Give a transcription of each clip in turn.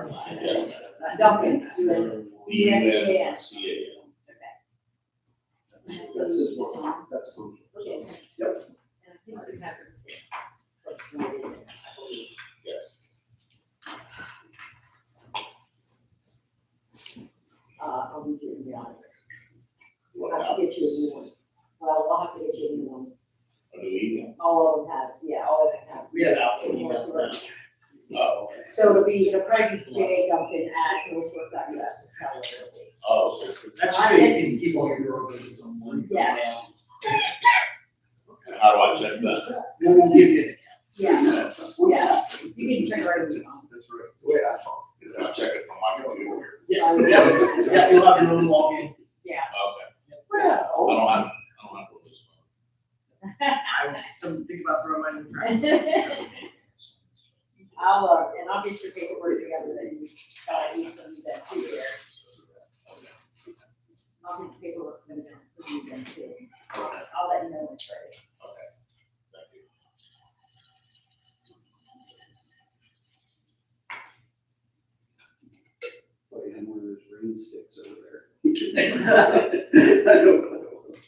Uh, Duncan, you and- D U N Yes, C A N. That's his one, that's cool. okay. Yep. And I think we have it. Let's move it in, I believe. Yes. Uh, I'll read you in the audience. We'll What have to happened? get you a new one. Well, we'll have to get you a new one. A new email. All of them have, yeah, all of them have. We have outfit emails now. Oh, okay. So it'll be the Frank J. Duncan at Hillsborough.us is how it'll be. Oh, so That's just so you can keep all your orders on one email. Yes. how do I check that? We'll we'll give you. Yeah, That's yeah, you can turn right around. right, the way I talk. Can I check it from my computer? Yes. Yes. Yeah, you'll have your own login. Okay. I Well. don't have, I don't have one of those. I will, something think about throwing mine in the trash. I'll, uh, and I'll get your paperwork together that you, uh, need to do that too there. I'll get the paperwork from them, from you then too. I'll, I'll let you know when it's ready. Okay. Thank you. Play in one of those rain sticks over there. I don't know what it was.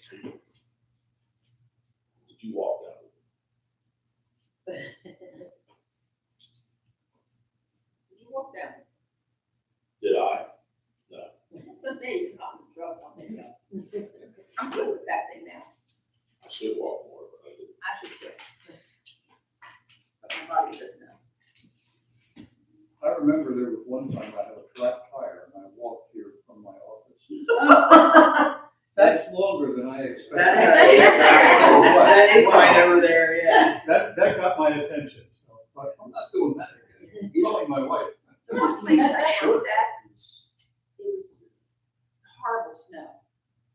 Did you walk down? Did you walk down? Did I? I was gonna say, you caught the drug on the hill. I'm good with that thing now. I should walk more, but I didn't. I should check. But my body doesn't know. I remember there was one time I had a flat tire and I walked here from my office. That's longer than I expected. That is right over there, yeah. That, that got my attention, so I thought, I'm not doing that again. Calling my wife. The last place I showed that is, it was horrible snow.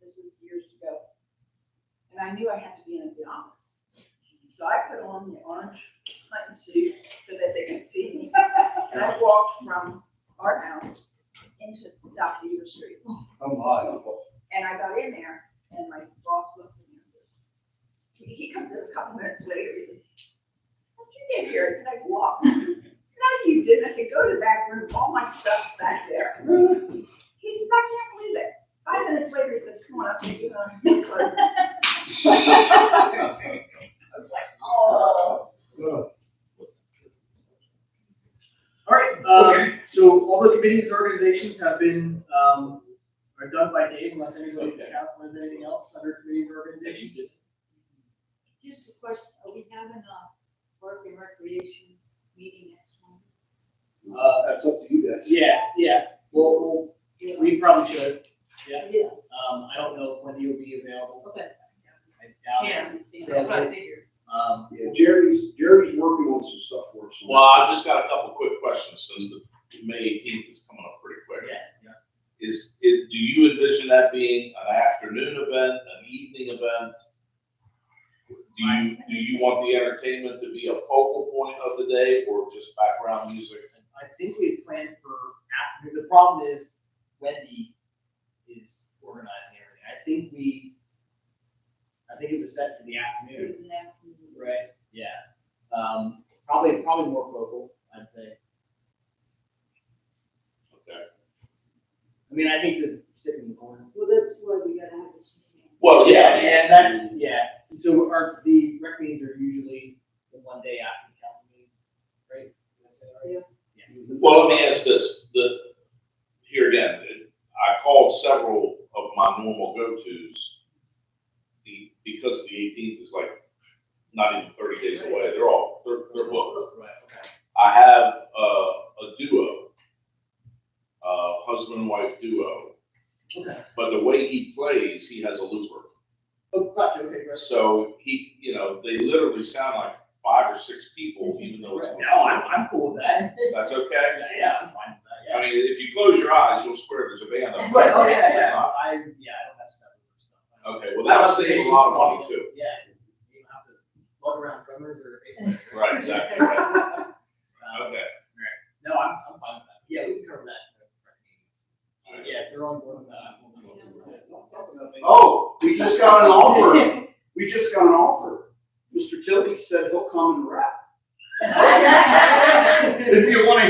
This was years ago. And I knew I had to be in the office. So I put on the orange hunting suit so that they could see me. And I walked from our house into South Beaver Street. Come on. And I got in there and my boss looks at me and says, he he comes in a couple minutes later, he says, how'd you get here? I said, I walked. He says, no, you didn't. I said, go to the back room, all my stuff's back there. He says, I can't believe it. Five minutes later, he says, come on up, take you home. I was like, oh. All right, um, so all the committees and organizations have been, um, are done by Dave unless anybody in the council has anything else under committees or organizations. Just a question, are we having a work and recreation meeting next month? Uh, That's up to you guys. yeah, yeah, we'll, we'll, we probably should. Yeah. Um, I don't know if Wendy will be available. Okay. I doubt Yeah, it. that's what I figured. Um, Yeah, Jerry's, Jerry's working on some stuff for us. Well, I've just got a couple quick questions since the May eighteenth is coming up pretty quick. yes, Is, it, do you envision that being an afternoon event, an evening event? Do you, do you want the entertainment to be a focal point of the day or just background music? I think we had planned for afternoon. The problem is Wendy is organizing everything. I think we, I think it was set for the afternoon. It was an afternoon. Right. Yeah. Um, probably, probably more vocal, I'd say. Okay. I mean, I hate to stick in the corner. Well, that's why we gotta have this meeting. Well, yeah. Yeah, that's, yeah. And so our, the rec meetings are usually the one day after the council meeting, right? Did I say that right? Yeah. Well, let me ask this, the, here again, it- I called several of my normal go-tos. The, because the eighteenth is like not even thirty days away, they're all, they're, they're booked. Right, okay. I have uh, a duo, uh, husband and wife duo. Okay. But the way he plays, he has a looper. Oh, gotcha, okay, right. So he, you know, they literally sound like five or six people, even though it's. No, I'm, I'm cool with that. That's okay. Yeah, yeah, I'm fine with that, I yeah. mean, if you close your eyes, you'll swear there's a band up there. Right, oh, yeah, yeah, I, yeah, I don't have stuff. with stuff. I don't- Okay, well, that would save a lot of money too. Yeah, you don't have to lug around drummers or. bass players, Right, exactly. right. Okay, Oh,